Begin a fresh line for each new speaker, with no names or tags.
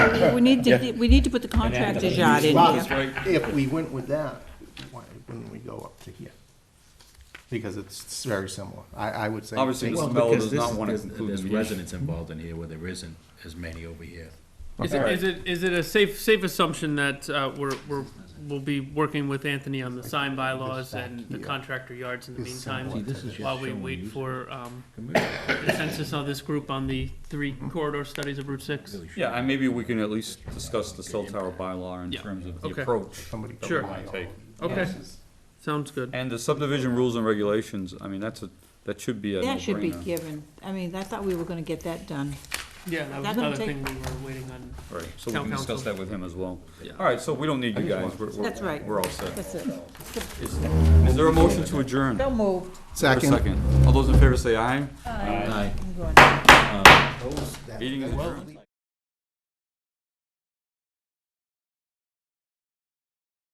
we need to, we need to put the contractor yard in
Well,
here.
If we went with that, why wouldn't we go up to here? Because it's very similar. I, I would say.
Obviously,
Well,
Mr. Mello
because
does
this
not
is-
want to
there's-
include the
There's
mediation.
residents involved in here where there isn't as many over here.
Is it, is it, is it a safe, safe assumption that, uh, we're, we're, we'll be working with Anthony on the sign bylaws and the contractor yards in the
Is somewhat-
meantime?
this is just
While we
showing
wait
use.
for, um, consensus of this group on the three corridor studies of Route Six?
Yeah, and maybe we can at least discuss the cell tower bylaw in
Yeah.
terms of the
Okay.
approach.
Somebody.
that we
Sure.
might take.
Okay, sounds good.
And the subdivision rules and regulations, I mean, that's a, that should be a
That should be
no-brainer.
given. I mean, I thought we were gonna get that done.
Yeah, that was
That gonna
another
take-
thing we were waiting on.
Right, so we
Town
can discuss
council.
that with him as well.
Yeah.
All right, so we don't need you guys, we're,
That's
we're,
right.
we're all set.
That's it.
Is there a motion to adjourn?
So moved.
Second.
All those in favor say aye.
Aye.
I'm going.
Meeting is adjourned.